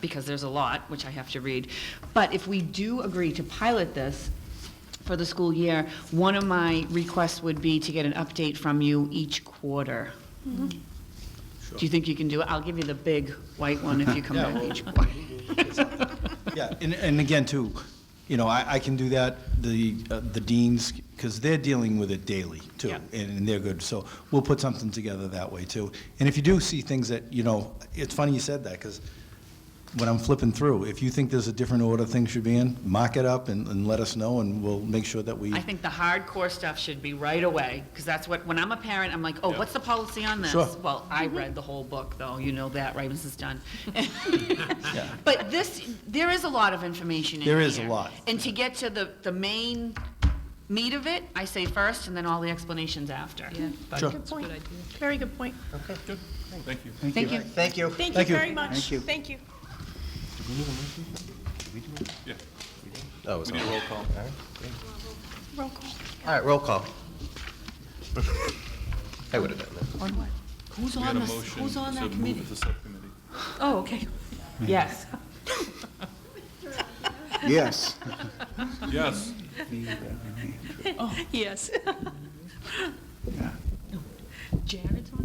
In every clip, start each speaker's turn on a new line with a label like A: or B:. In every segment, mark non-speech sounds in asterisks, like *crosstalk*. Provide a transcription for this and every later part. A: because there's a lot, which I have to read. But if we do agree to pilot this for the school year, one of my requests would be to get an update from you each quarter. Do you think you can do it? I'll give you the big white one if you come
B: *laughs* Yeah,
A: back
B: well-
A: each quarter.
B: *laughs* Yeah, and, and again, too, you know, I, I can do that, the, uh, the deans, because they're dealing with it daily, too,
A: Yeah.
B: and and they're good, so we'll put something together that way, too. And if you do see things that, you know, it's funny you said that, because when I'm flipping through, if you think there's a different order things should be in, mark it up and, and let us know, and we'll make sure that we,
A: I think the hardcore stuff should be right away, because that's what, when I'm a parent, I'm like, oh, what's the policy on this?
B: Sure.
A: Well, I read the whole book, though, you know that, right, Mrs. Dunn?
B: *laughs* yeah,
A: But this, there is a lot of information in here.
B: There is a lot.
A: And to get to the, the main meat of it, I say first, and then all the explanations after.
C: Yeah.
A: But-
B: sure.
C: Good point. Very good point.
A: Thank you.
D: Thank you.
C: Thank you
B: Thank you.
C: very much. Thank you. Thank you.
D: Oh, it's on.
E: Roll call.
C: Roll call.
D: All right, roll call. I would have done that.
A: On what? Who's
E: We
A: on
E: had a
A: this,
E: motion
A: who's on
E: to
A: that
E: move
A: committee?
E: the subcommittee.
C: Oh, okay.
A: Yes.
F: Yes.
E: Yes,
C: Yes.
A: Jared's on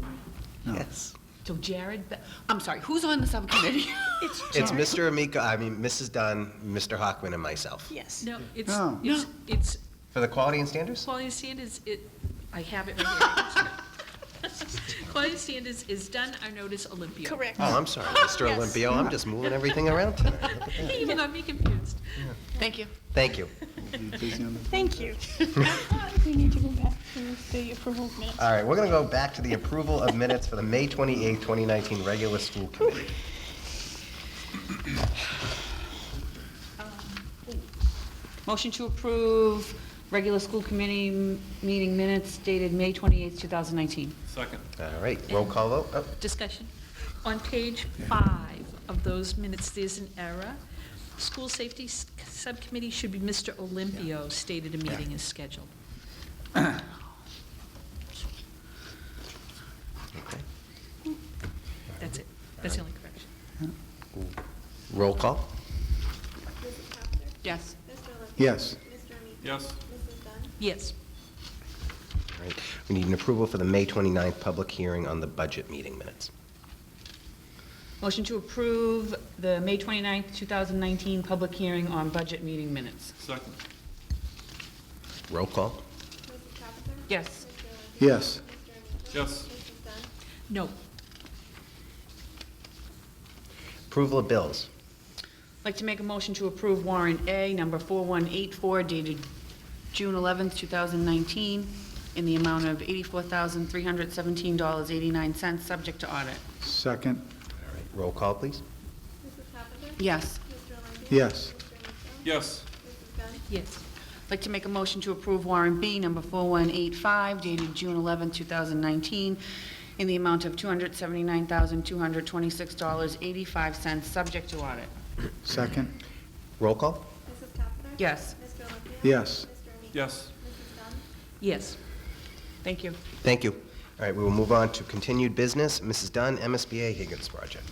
A: that?
D: Yes.
A: So Jared, Be- I'm sorry, who's on the subcommittee? *laughs*
C: It's
D: It's
C: Jared.
D: Mr. Amico, I mean, Mrs. Dunn, Mr. Hockman, and myself.
C: Yes.
G: No, it's,
F: No.
G: it's, it's,
D: For the quality and standards?
G: Claudia Sanders, it, I have it right here. Claudia Sanders is done, I notice Olympia.
C: Correct.
D: Oh, I'm sorry, Mr.
C: Yes.
D: Olympio, I'm just moving everything around tonight.
G: Even got me confused.
A: Thank you.
D: Thank you.
C: Thank you. *laughs* We need to go back to the approval of minutes.
D: All right, we're going to go back to the approval of minutes for the May 28, 2019 regular school committee.
A: Motion to approve regular school committee m- meeting minutes dated May 28th, 2019.
E: second.
D: All right, roll call vote. Oh,
G: Discussion. On page five of those minutes, there's an error. School Safety S- Subcommittee should be Mr. Olympio stated a meeting is scheduled. That's it. That's the only correction.
D: Roll call?
A: Yes.
F: Yes.
E: Yes,
G: Yes.
D: All right, we need an approval for the May 29th public hearing on the budget meeting minutes.
A: Motion to approve the May 29th, 2019 public hearing on budget meeting minutes.
E: second.
D: Roll call?
A: Yes.
F: Yes.
E: Yes,
G: No.
D: Approval of bills.
A: I'd Like to make a motion to approve warrant A, number 4184, dated June 11th, 2019, in the amount of $84,317.89, subject to audit.
F: Second.
D: All right, roll call, please.
A: Yes.
F: Yes.
E: yes,
G: Yes.
A: I'd Like to make a motion to approve warrant B, number 4185, dated June 11th, 2019, in the amount of $279,226.85, subject to audit.
F: Second.
D: Roll call?
A: Yes.
F: Yes.
E: yes,
G: Yes.
A: Thank you.
D: Thank you. All right, we will move on to continued business. Mrs. Dunn, MSBA Higgins Project.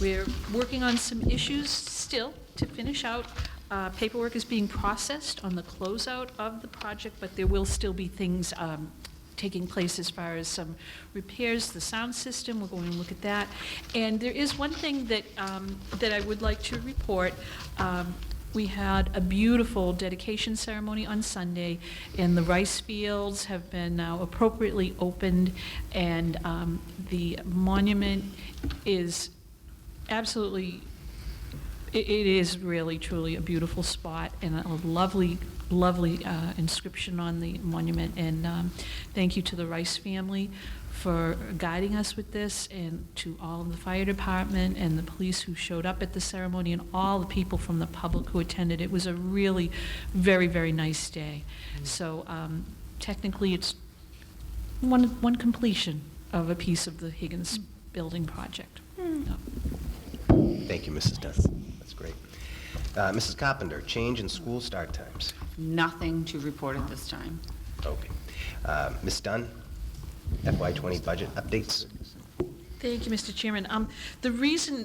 G: We're working on some issues still to finish out. Uh, Paperwork is being processed on the closeout of the project, but there will still be things um, taking place as far as some repairs, the sound system, we're going to look at that. And there is one thing that, um, that I would like to report. Um, We had a beautiful dedication ceremony on Sunday, and the rice fields have been now appropriately opened, and um, the monument is absolutely, i- it is really truly a beautiful spot and a lovely, lovely uh, inscription on the monument. And um, thank you to the Rice family for guiding us with this and to all of the fire department and the police who showed up at the ceremony and all the people from the public who attended. It was a really very, very nice day. So um, technically, it's one, one completion of a piece of the Higgins building project. Yeah.
D: Thank you, Mrs. Dunn. That's great. Uh, Mrs. Carpenter, change in school start times.
A: Nothing to report at this time.
D: Okay. Uh, Ms. Dunn, FY20 budget updates.
G: Thank you, Mr. Chairman. Um, The reason